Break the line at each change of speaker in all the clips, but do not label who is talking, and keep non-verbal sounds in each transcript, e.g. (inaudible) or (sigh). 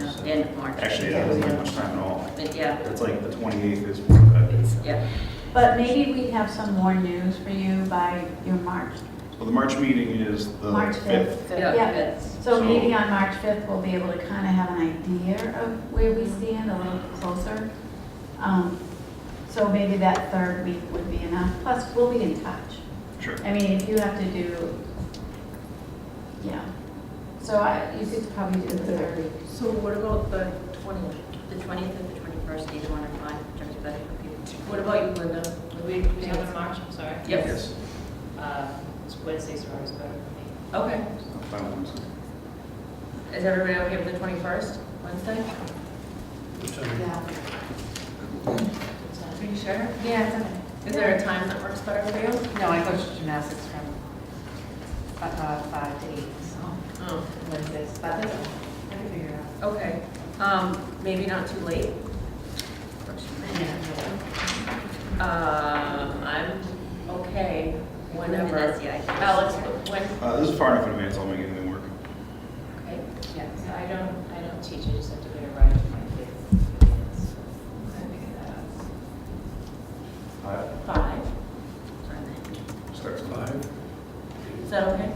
so.
End of March.
Actually, that doesn't have much time at all.
But yeah,
It's like the 28th is, well,
it's, yeah,
But maybe we have some more news for you by your March,
the March meeting is the
March
5th.
5th.
Yeah,
Yeah,
fifth.
so
So-
maybe on March 5th, we'll be able to kind of have an idea of where we stand, a little closer. Um, So maybe that third week would be enough, plus we'll be in touch.
Sure.
I mean, if you have to do, yeah, so I, you could probably do the third week.
So what about the 20th?
the twentieth and the twenty-first, either one are fine, whichever's better for people.
What about you, Linda?
Would we do it in March, I'm sorry?
Yep,
Yes.
Uh, Wednesdays are always better for me.
okay.
I'm fine with it.
Is everybody okay with the twenty-first, Wednesday? Are you sure? Yeah, it's okay. Is there a time that works better for you?
No, I go to gymnastics from fi- uh, five to eight, so
Oh,
Wednesdays, but I can figure it out.
okay. Um, maybe not too late. Works for me. Um, I'm okay whenever.
That's- yeah, I can-
Alex, when?
Uh, This is far enough in advance, I'll make anything work.
Okay, yeah, so I don't, I don't teach, I just have to get a ride with my kids.
Five.
Five.
Starts at five.
Is that okay?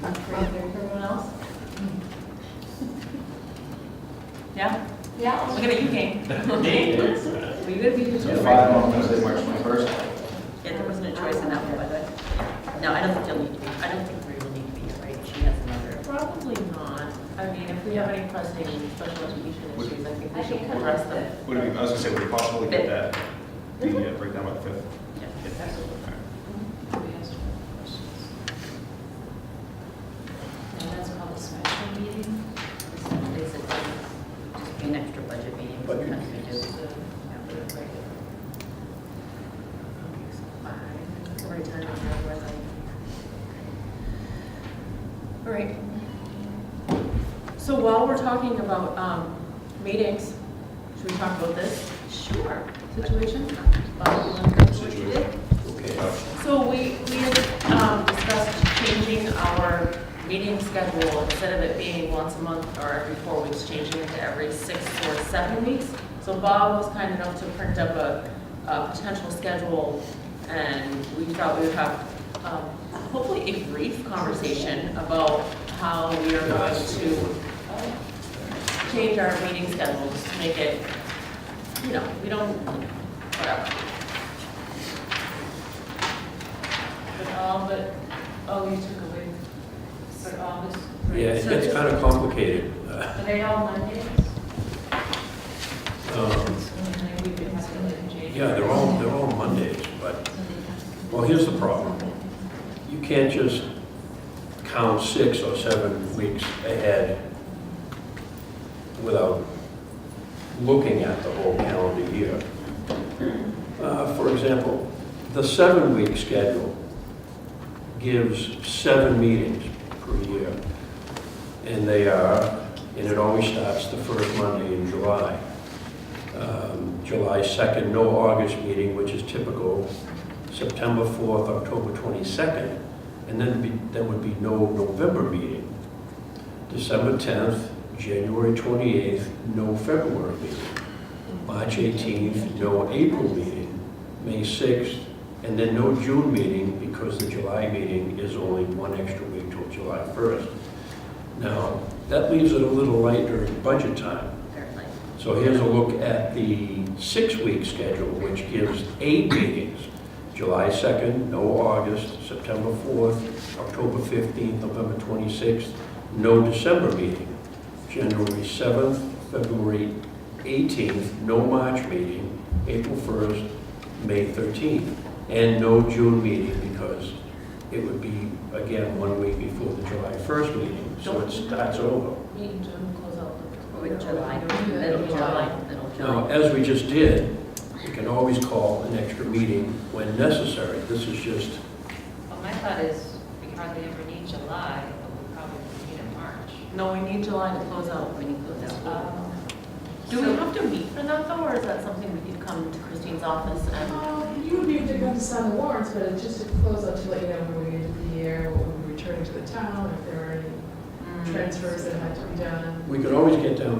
For everyone else? Yeah?
Yeah,
Look at you,
(laughs)
Kane. We good, we
So
good.
five on Wednesday, March 21st.
Yeah, there wasn't a choice in that one, by the way. No, I don't think you'll need to be, I don't think Marie will need to be, here, right? She has another. Probably not. I mean, if we have any pressing special education
Would-
issues, I think we
I
should
can come
address
up
them.
Would it be, I was gonna say, would it possibly get that, the uh, breakdown by the 5th?
Yeah.
Nobody has questions. And that's called a special meeting?
It's basically just be an extra budget meeting,
Budget
sometimes we do.
Just the, yeah, the regular.
Five. Every time I have one, I- All right. So while we're talking about um, meetings, should we talk about this? Sure. Situation? Bob, you wanna go through what you did?
Okay.
So we, we had um, discussed changing our meeting schedule, instead of it being once a month or every four weeks, changing it to every six or seven weeks. So Bob was kind enough to print up a, a potential schedule, and we thought we would have um, hopefully a brief conversation about how we are going to change our meeting schedules to make it, you know, we don't, whatever.
But all but, oh, you took away, but all this.
Yeah, it
So
gets
just-
kind of complicated. (laughs) Uh,
Are they all Mondays?
um,
And we could have to change.
Yeah, they're all, they're all Mondays, but, well, here's the problem. You can't just count six or seven weeks ahead without looking at the whole calendar year. Uh, For example, the seven-week schedule gives seven meetings per year. And they are, and it always starts the first Monday in July. Um, July 2nd, no August meeting, which is typical, September 4th, October 22nd, and then be- there would be no November meeting. December 10th, January 28th, no February meeting. March 18th, no April meeting, May 6th, and then no June meeting because the July meeting is only one extra week till July 1st. Now, that leaves it a little light during budget time.
Apparently.
So here's a look at the six-week schedule, which gives eight meetings. July 2nd, no August, September 4th, October 15th, November 26th, no December meeting. January 7th, February 18th, no March meeting, April 1st, May 13th, and no June meeting because it would be, again, one week before the July 1st meeting, so it starts over.
Meet in June, close out the.
With Oh, July,
Yeah.
middle July, middle
Now,
July.
as we just did, we can always call an extra meeting when necessary. This is just,
Well, my thought is, we hardly ever need July, but we probably need it in March.
No, we need July to close out, we need to close out.
Um,
Do we have to meet for that though, or is that something we could come to Christine's office and?
Um, You would need to go to sign the warrants, but it's just to close out to let you know when we get to the year, what
mm,
we're returning to the town, if there are any transfers that had to be done.
we could always get down